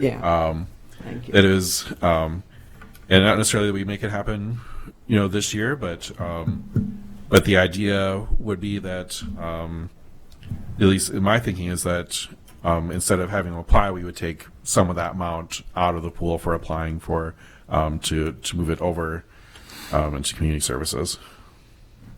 Yeah, Um, thank you. it is, um, and not necessarily that we make it happen, you know, this year, but um, but the idea would be that, um, at least in my thinking, is that um, instead of having them apply, we would take some of that amount out of the pool for applying for um, to to move it over um, into community services.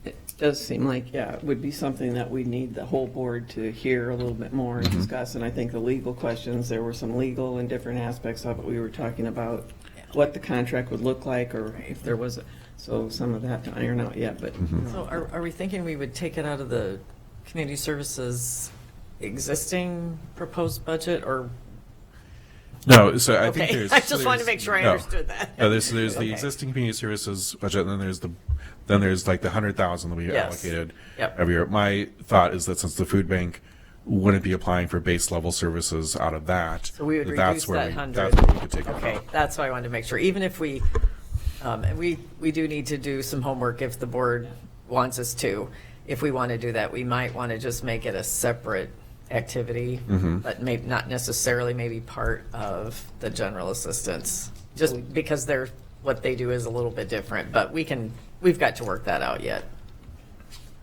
It does seem like, yeah, it would be something that we need the whole board to hear a little bit more Mm-hmm. and discuss. And I think the legal questions, there were some legal and different aspects of it. We were talking about what the contract would look like or if there was, a- so some of that to iron out yet, but. Mm-hmm. So are, are we thinking we would take it out of the community services existing proposed budget or? No, so I think Okay, there's. I just wanted to there's- make sure I no. understood that. No, Oh, there's there's Okay. the existing community services budget, and then there's the then there's like the hundred thousand that we Yes. allocated Yep. every year. My thought is that since the food bank wouldn't be applying for base level services out of that, So we would that reduce that's where that we, hundred. That's where we could take it Okay, out. that's why I wanted to make sure, even if we, um, and we, we do need to do some homework if the board wants us to. If we want to do that, we might want to just make it a separate activity, but maybe not necessarily maybe part of the general assistance. Just because they're, what they do is a little bit different, but we can, we've got to work that out yet.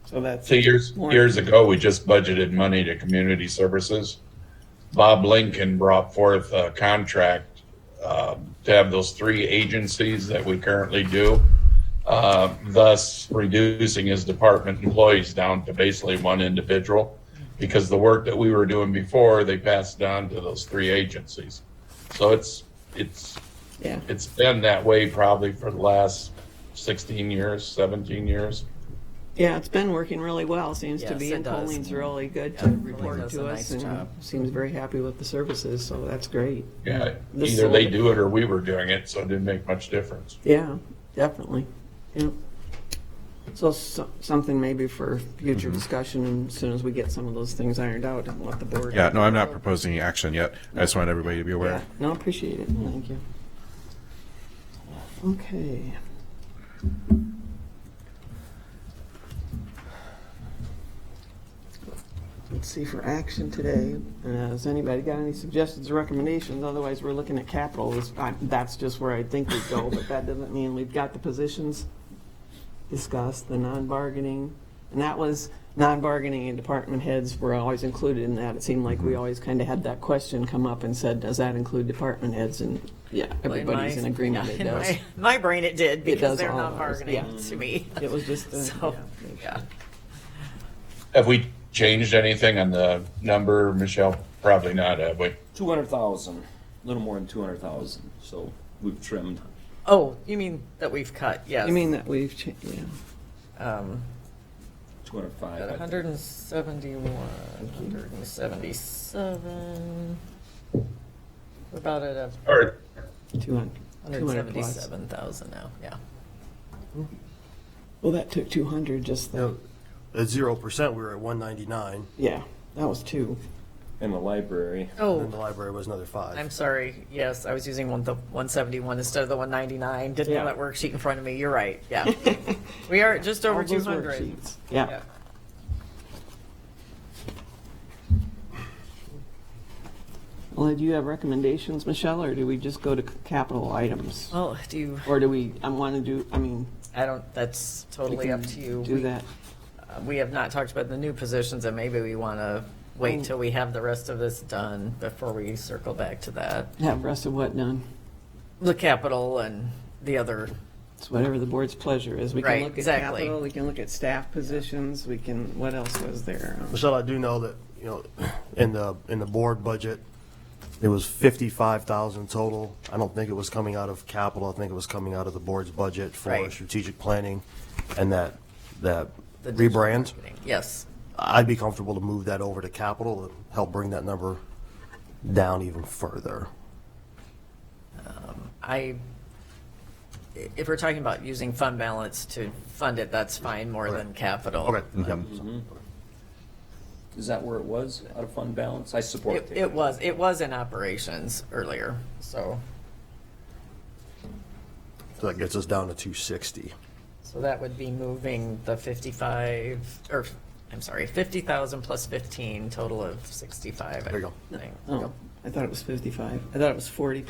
So that's. So years, Warren. years ago, we just budgeted money to community services. Bob Lincoln brought forth a contract um, to have those three agencies that we currently do, uh, thus reducing his department employees down to basically one individual. Because the work that we were doing before, they passed on to those three agencies. So it's, it's, Yeah, it's been that way probably for the last 16 years, 17 years. yeah, it's been working really well, seems to Yes, be. it And does. Colleen's really good Yeah, to Colleen report does to a us nice and job. seems very happy with the services, so that's great. Yeah, This either they sold- do it or we were doing it, so it didn't make much difference. Yeah, definitely, yeah. So, so- something maybe for future Mm-hmm. discussion, and as soon as we get some of those things ironed out, and let the board. Yeah, no, I'm not proposing any action yet. I just want everybody to be aware. Yeah, No, appreciate it, thank you. Okay. Let's see for action today, Uh, has anybody got any suggestions or recommendations? Otherwise, we're looking at capital, This- I- that's just where I think we go, but that doesn't mean we've got the positions discussed, the non-bargaining, and that was, non-bargaining and department heads were always included in that. It seemed like we always kind of had that question come up and said, does that include department heads? And, yeah, In everybody's my- in agreement, yeah, it in does. my- My brain, it did, does because they're all not of ours, bargaining yeah. to me. It was just, uh, So, yeah. Have we changed anything on the number, Michelle? Probably not, have we? Two hundred thousand, a little more than two hundred thousand, so we've trimmed. Oh, you mean that we've cut, yes. You mean that we've changed, yeah. Um, Two hundred five. At 171, 177. We're about at a Or, 200, 200 plus. 177,000 now, yeah. Well, that took 200, just, the- Now, at zero percent, we were at one ninety-nine, yeah, that was two. In the library, and Oh, the library was another I'm five. sorry, yes, I was using one, the 171 instead of the 199, didn't have Yeah. that worksheet in front of me, you're right, yeah. We are just over All those 200. worksheets. Yeah, Yeah. well, do you have recommendations, Michelle, or do we just go to c- capital items? Well, do you, Or do we, I want to do, I mean, I don't, that's we totally can up to you. do We- that. uh, We have not talked about the new positions, and maybe we want to Oh. wait till we have the rest of this done before we circle back to that. Have rest of what done? the capital and the other, It's whatever the board's pleasure is. We can Right, look at exactly. capital, we can look at staff positions, we can, what else was there? Um, Michelle, I do know that, you know, in the, in the board budget, it was fifty-five thousand total. I don't think it was coming out of capital, I think it was coming out of the board's budget for Right. strategic planning and that, that The digital rebrand. yes. I'd be comfortable to move that over to capital, to help bring that number down even further. I, if we're talking about using fund balance to fund it, that's fine, more than capital. Okay, yep. is that where it was, out of fund balance? I support It, it. it was, it was in operations earlier, so, So that gets us down to two sixty. so that would be moving the fifty-five, or, I'm sorry, fifty thousand plus fifteen, total of sixty-five. There you I think. Oh, I thought it was 55. I thought it was 40